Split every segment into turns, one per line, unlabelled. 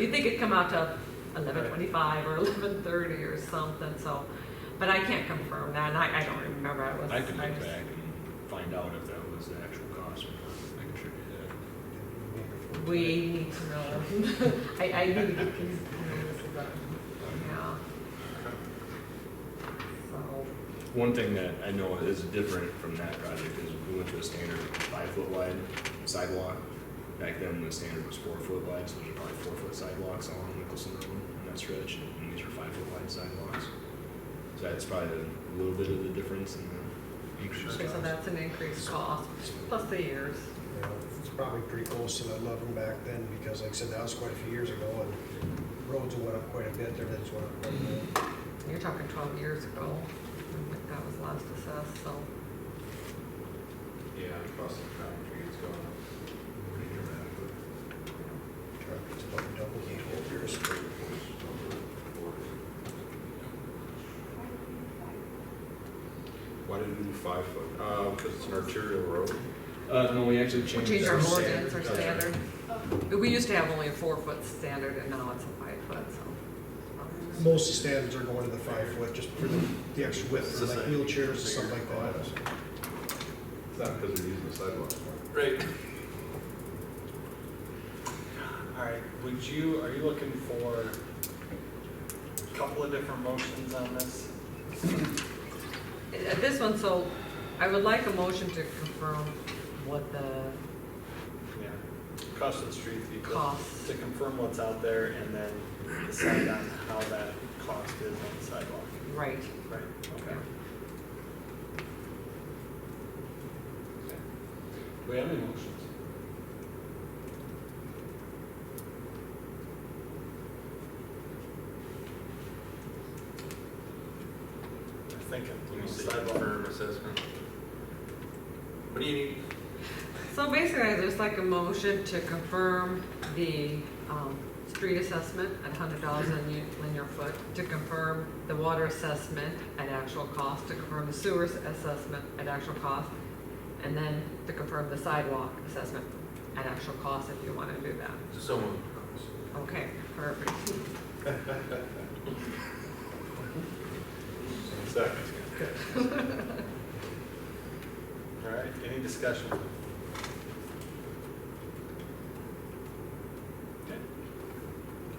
you think it'd come out to eleven twenty-five or eleven thirty or something, so, but I can't confirm that, and I, I don't remember, I was.
I could look
just-
back and find out if that was the actual cost or not. I can sure do
We need to know, I, I need to get these numbers done, yeah. So,
that. One thing that I know is different from that project is we went to a standard five foot wide sidewalk. Back then, the standard was four foot wide, so there's probably four foot sidewalks along Nicholson Road in that stretch, and these are five foot wide sidewalks. So that's probably a little bit of the difference in the increase
okay, so
cost.
that's an increased cost, plus the years.
You know, It's probably pretty close to that level back then, because like I said, that was quite a few years ago, and roads went up quite a bit, everything's went up. quite a bit.
You're talking twelve years ago, I think that was last assessed, so.
Yeah, across the country, it's going up pretty dramatically.
It's about double the old years.
Why did we do five foot? Uh, because it's an arterial road.
Uh, no, we actually changed.
Change our
that.
ordinance, our
standard.
standard. We used to have only a four-foot standard, and now it's a five-foot, so.
Most standards are going to the five foot, just for the, the extra width,
It's
for
the
like
same.
wheelchairs and stuff like that.
It's not because they're using the sidewalks more.
Right. All right, would you, are you looking for a couple of different motions on this?
Uh, This one, so I would like a motion to confirm what the
Yeah. Cost of the street people.
Cost.
To confirm what's out there and then decide on how that cost is on the sidewalk.
right.
Right. Okay. Do we have any motions? I think
Let me
I'm
see,
sidewalk.
firm assessment. What do you need?
So basically, I just like a motion to confirm the um, street assessment at hundred dollars a u- linear foot, to confirm the water assessment at actual cost, to confirm the sewer s- assessment at actual cost, and then to confirm the sidewalk assessment at actual cost, if you want to do that.
Someone.
Okay, perfect.
Second. All right, any discussion? Okay.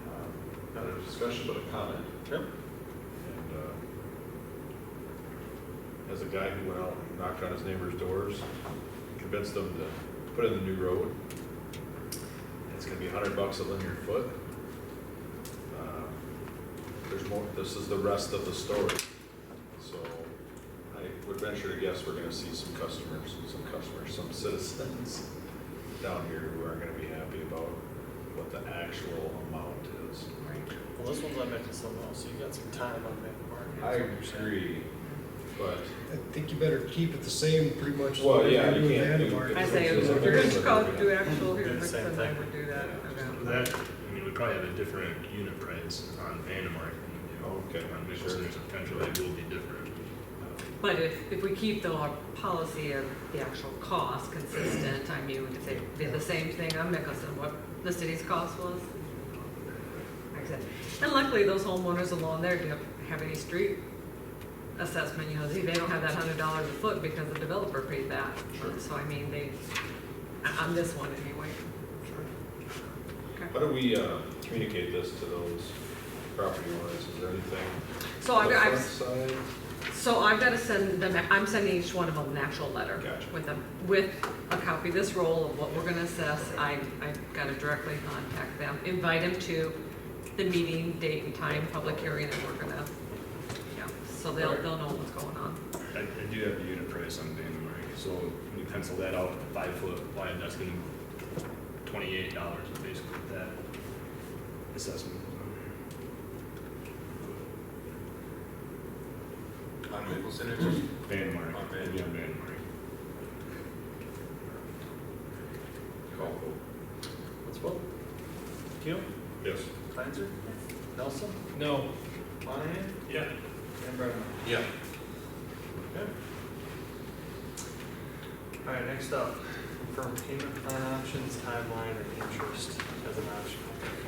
Um, Not a discussion, but a comment.
Sure.
And uh, as a guy who went out and knocked on his neighbor's doors, convinced them to put in the new road, it's gonna be a hundred bucks a linear foot. Uh, There's more, this is the rest of the story. So I would venture to guess we're gonna see some customers, some customers, some citizens down here who aren't gonna be happy about what the actual amount is.
Well, this one's on Nicholson Law, so you got some time on that
I
part.
agree, but
I think you better keep it the same, pretty much.
Well, yeah,
Whatever
you
you're
can't
doing,
do-
Mark.
I say,
This
if
is a
you're
very
going to go
good-
do actual
Do the
here,
same
then
thing.
I would do that.
So
okay.
That, I mean, we probably have a different unit price on Vandemark than we do
Oh, Okay,
on Nicholson,
sure.
so potentially it will be different.
uh,
But if, if we keep the law- policy of the actual cost consistent, I mean, if they did the same thing on Mickelson, what the city's cost was. Like I said, And luckily, those homeowners along there don't have any street assessment, you know, they they don't have that hundred dollars a foot because the developer paid that. So I mean, they, on this one anyway. Okay.
How do we uh, communicate this to those property owners? Is there anything?
So I,
on the
I've,
front side?
So I've got to send them, I'm sending each one of them an actual letter.
Gotcha.
With them, with a copy of this roll of what we're gonna assess, I, I've got to directly contact them, invite them to the meeting, date and time, public hearing that we're gonna, yeah, so they'll,
Alright.
they'll know what's going on.
I, I do have the unit price on Vandemark, so when you pencil that out, five foot wide, that's gonna be twenty-eight dollars basically what that assessment. was on there.
On Nicholson, it is.
Vandemark,
On Van-
it'd be on Vandemark.
Call vote.
Let's vote. Keel?
Yes.
Clancy? Nelson?
No.
Monahan?
Yeah.
And Brenneman?
Yeah.
Okay. All right, next up, confirm payment plan options, timeline, and interest as an option.